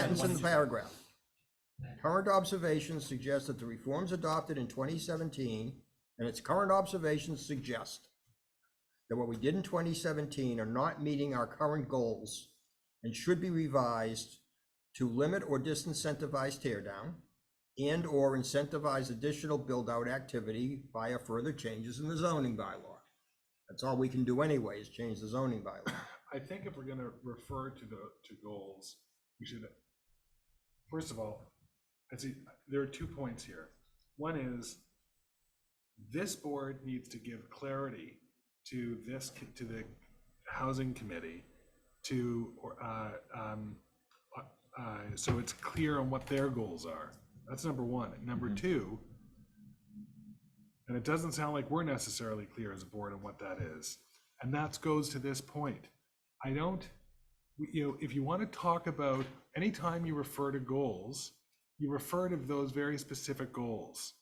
sentence in the paragraph. Current observations suggest that the reforms adopted in twenty seventeen and its current observations suggest that what we did in twenty seventeen are not meeting our current goals and should be revised to limit or disincentivize tear down and/or incentivize additional build-out activity via further changes in the zoning bylaw. That's all we can do anyway, is change the zoning bylaw. I think if we're gonna refer to the, to goals, we should, first of all, I see, there are two points here. One is, this board needs to give clarity to this, co- to the housing committee, to, or, uh, um, uh, uh, so it's clear on what their goals are. That's number one. And Number two, and it doesn't sound like we're necessarily clear as a board on what that is. And that goes to this point. I don't, you know, if you want to talk about, anytime you refer to goals, you refer to those very specific goals.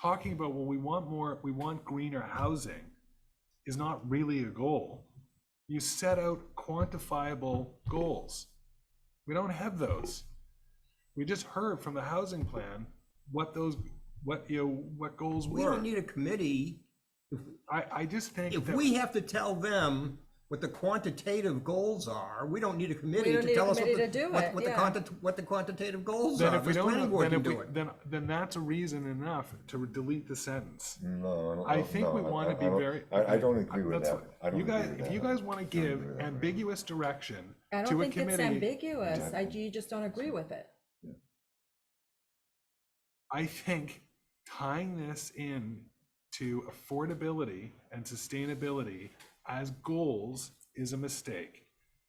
Talking about, well, we want more, we want greener housing is not really a goal. You set out quantifiable goals. We don't have those. We just heard from the housing plan what those, what, you know, what goals were. We don't need a committee. I, I just think If that- we have to tell them what the quantitative goals are, we don't need a committee don't need to a tell us what committee the, to do what- it, what the yeah. quanti- what the quantitative goals then are. if we This don't, planning board then can if we, do it. then then that's a reason enough to delete the sentence. No, I don't. I don't- think no, we I- want I- to be I don't- very. I, I don't agree with That's that. what- I don't You agree guys, with if that. you guys want to give agree with that, right. ambiguous direction I to don't a think it's committee, ambiguous. I, you just don't agree with it. I think tying this in to affordability and sustainability as goals is a mistake.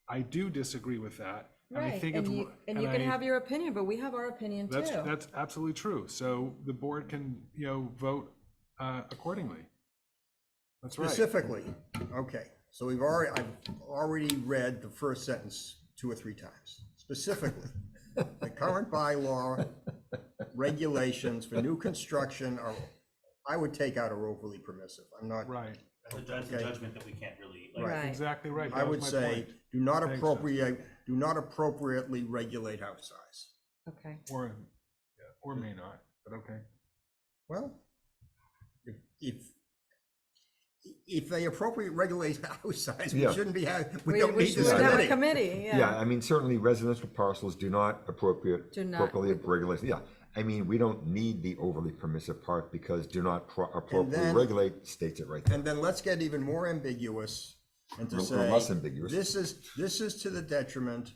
I do disagree with that. and I Right, think it's and you, wr- and you can I- have your opinion, but we have our opinion That's, too. that's absolutely true. So the board can, you know, vote uh, accordingly. That's right. Specifically, okay, so we've already, I've already read the first sentence two or three times. Specifically, the current bylaw regulations for new construction are, I would take out are overly permissive. I'm not, Right, That's a Okay. judgment that we can't really, like, Right. exactly right. I That was would my say, point. do not Thanks, Seth. appropriate, do not appropriately regulate house size. Okay. Or, or may not, but okay. Well, if, if, if they appropriate regulate house size, we Yeah. shouldn't be, ha- we We, don't we need should this have a committee. committee, Yeah, yeah. I mean, certainly residential parcels do not appropriate, Do not- appropriately regulate, yeah. I mean, we don't need the overly permissive part because do not pro- appropriately then- regulate states it right there. And then let's get even more ambiguous and to Or- or say. less ambiguous. This is, this is to the detriment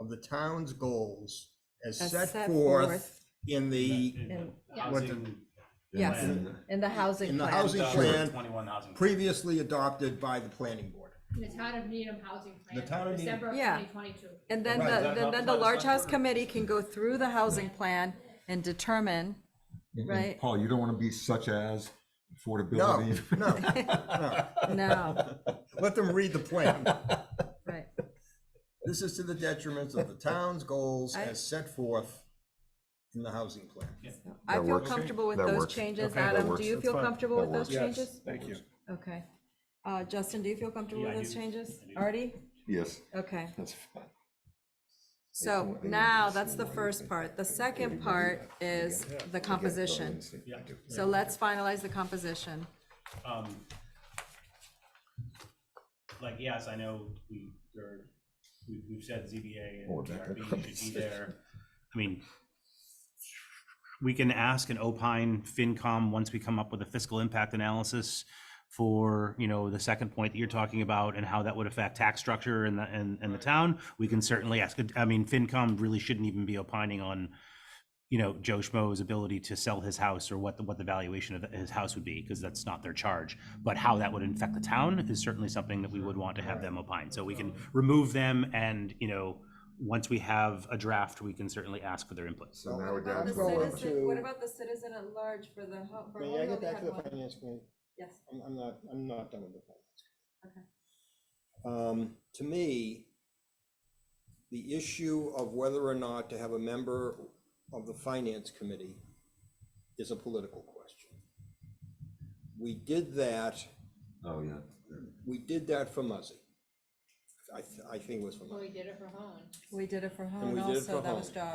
of the town's goals as As set set forth forth in the, in the yeah. What the- housing. Yes, plan, in the housing in the plan. housing uh, plan Twenty-one housing. plan. previously adopted by the planning board. The town of Needham housing plan. The town of Needham. December of Yeah. twenty twenty-two. And then Right. the, then- then the large house committee can go through the housing plan and determine, And- and right. Paul, you don't want to be such as No, affordability. no, no, let them read the plan. right, This is to the detriment of the town's goals I- as set forth in the housing plan. I That feel works. comfortable with That those works. changes, Okay. That Adam, works. do you That's feel fine. comfortable That with those works. changes? Thank you. Okay, uh, Justin, do you feel comfortable Yeah, with I those do. changes? I do. Artie? Yes, Okay, that's fine. so now that's the first part, the second part is the composition. Yeah. I do. So let's finalize the composition. Um, Like, yes, I know we, there, we, we've said ZBA and Or back up. DRB should be there. I mean, we can ask an opine FinCom once we come up with a fiscal impact analysis for, you know, the second point that you're talking about and how that would affect tax structure and the, and, and the town. We can certainly ask, I mean, FinCom really shouldn't even be opining on, you know, Joe Schmo's ability to sell his house or what the, what the valuation of his house would be, because that's not their charge. But how that would affect the town is certainly something that we would want to have them opine. So we can remove them and, you know, once we have a draft, we can certainly ask for their inputs. So now What we're about down the to. our- citizen- to- what about the citizen at large for the, for May I get back to the finance committee? Yes, I'm, I'm not, I'm not done with the finance. okay. um, to me, the issue of whether or not to have a member of the finance committee is a political question. We did that, Oh, yeah. we did that for Muzzy. I, th- I think it was for Muzzy. Well, we did it for Hone. We did it for we Hone did it for also, that was Hone. Josh.